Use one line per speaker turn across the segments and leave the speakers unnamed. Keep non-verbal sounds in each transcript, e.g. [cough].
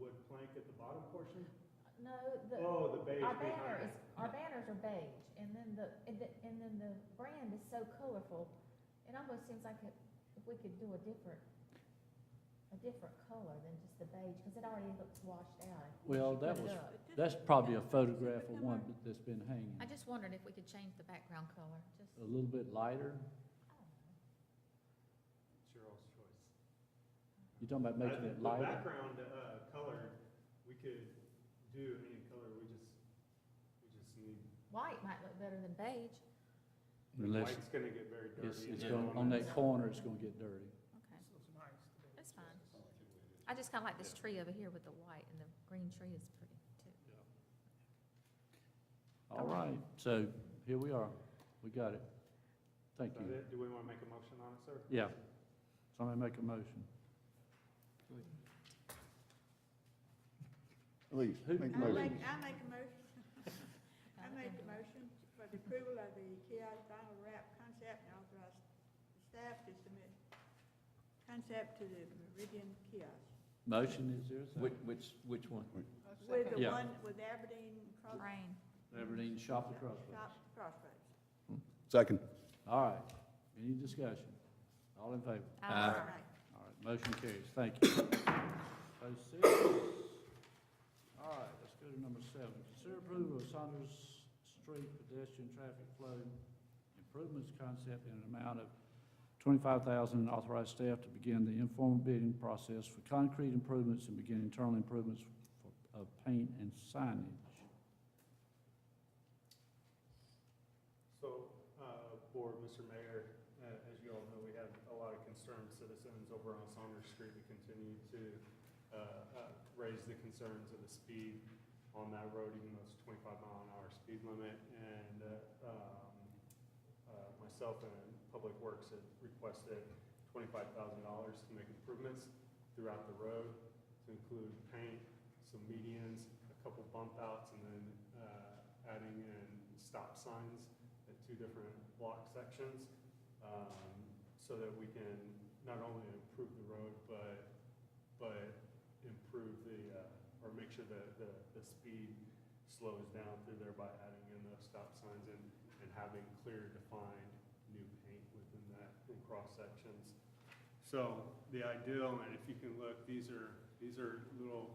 blank at the bottom portion?
No, the,
Oh, the beige
our banner
behind.
is, our banners are beige, and then the, and the- and then the brand is so colorful. It almost seems like if if we could do a different, a different color than just the beige, because it already looks washed out. if we
Well,
should
that
put it up.
was- That's probably a photograph of one that's been hanging,
I just wondered if we could change the background color, just, I
a little bit lighter.
don't know.
Cheryl's choice.
You're talking about
I
making
think
it lighter?
The background, uh, color, we could do any color, we just, we just need,
White might look better than beige.
Unless
white's gonna get very dirty.
it's,
in
it's
the
going, on that
elements.
corner, it's gonna get dirty.
Okay. That's fine. I just kinda like this tree over here with the white, and the green tree is pretty too.
All right, so here we are. We got it. Thank
Is that
you.
it? Do we wanna make a motion on it, sir?
Yeah. Somebody make a motion.
Please,
Who-
make a
I
motion.
make, I make a motion, I make a motion for the approval of the Kiata final wrap concept and authorize the staff to submit concept to the Meridian kiosk.
Motion, is there a second?
Which, which, which one?
With the
Yeah.
one, with Aberdeen Cross.
Rain.
Aberdeen Shop at Crossroads.
Shop Crossroads.
Second.
All right. Any discussion? All in favor?
Aye.
All right.
All right, motion carries. Thank you. Those six. All right, let's go to number seven. Consider approval of Saunders Street pedestrian traffic flow improvements concept in an amount of twenty-five thousand and authorize staff to begin the informal bidding process for concrete improvements and begin internal improvements for- of paint and signage.
So, uh, Board, Mr. Mayor, uh, as you all know, we have a lot of concerned citizens over on Saunders Street. We continue to uh, uh, raise the concerns of the speed on that road, even though it's twenty-five mile an hour speed limit. And uh, um, uh, myself and Public Works had requested twenty-five thousand dollars to make improvements throughout the road, to include paint, some medians, a couple bump outs, and then uh, adding in stop signs at two different block sections, um, so that we can not only improve the road, but, but improve the, uh, or make sure that the, the speed slows down through there by adding in those stop signs and, and having clear defined new paint within that, in cross sections. So the ideal, and if you can look, these are, these are little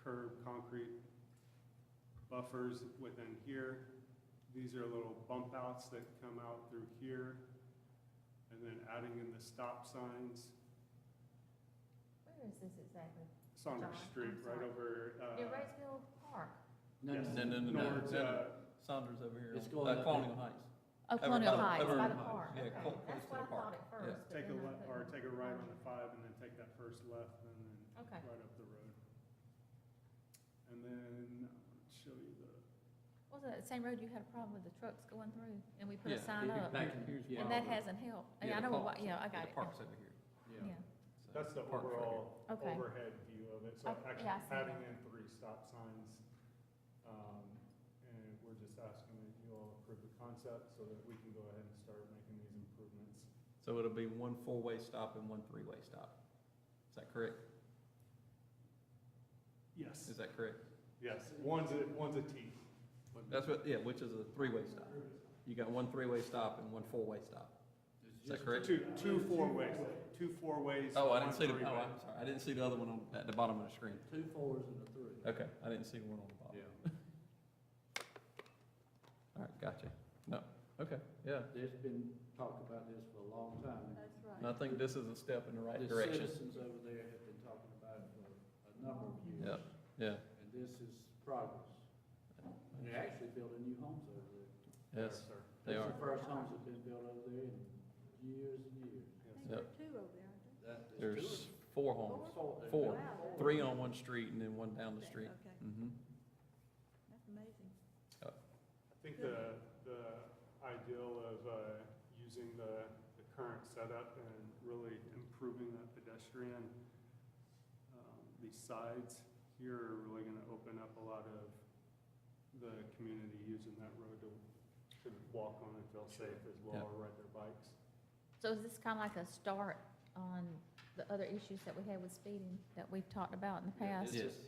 curved concrete buffers within here. These are little bump outs that come out through here, and then adding in the stop signs,
Where is this exactly?
Saunders
John,
Street,
I'm
right
sorry.
over, uh.
Near Roseville Park.
No,
yes,
no,
no, no, no,
towards,
no.
uh,
Saunders over here,
It's
on-
going
uh,
up.
Colonial Heights.
Oh,
Ever-
Colonial
ever-
Heights, by the
ever-
park,
yeah,
okay,
clo- close
that's what I
to the park.
thought at first, but
Take a
then I
left, or
couldn't.
take a right on the five, and then take that first left, and then
Okay.
right up the road. And then, I'll show you the,
Wasn't it the same road you had a problem with the trucks going through, and we put a
Yeah,
sign
it-
up?
that-
Back in here's.
Yeah.
And that hasn't helped, I mean, I know, what- yeah, I got it,
The park's over here.
yeah,
so
that's the
park's right here.
overall
okay,
overhead view of it, so
Oh,
actually
yeah, I see
adding
that.
in three stop signs. Um, and we're just asking that you all approve the concept so that we can go ahead and start making these improvements.
So it'll be one four-way stop and one three-way stop. Is that correct?
Yes.
Is that correct?
Yes, one's a, one's a T.
That's what, yeah, which is a three-way stop. You got one three-way stop and one four-way stop. Is that correct?
Two, two four ways, two four ways.
Oh, I didn't see the, oh,
one
I'm
three-way.
sorry, I didn't see the other one on, at the bottom of the screen.
Two fours and a three.
Okay, I didn't see the one on the bottom.
Yeah,
[laughs] All right, gotcha. No, okay, yeah.
there's been talk about this for a long time.
That's
And
right.
I think this is a step in the right
The
direction.
citizens over there have been talking about it for a number of years.
Yeah. Yeah,
And this is progress. And they're actually building new homes over there.
yes,
Yes, sir.
they
That's
are.
The first homes have been built over there in years and years.
I
Yes.
think there are two over there. aren't
That-
There's four homes,
Four. there's
Four.
been four.
three on one street and then one down the
there?
street.
Okay,
hmm
that's amazing.
I think the, the ideal of uh, using the, the current setup and really improving that pedestrian, um, these sides here are really gonna open up a lot of the community using that road to, to walk on and feel safe as well,
Yeah.
or ride their bikes.
so is this kinda like a start on the other issues that we had with speeding, that we've talked about in the
Yeah,
past?
This is,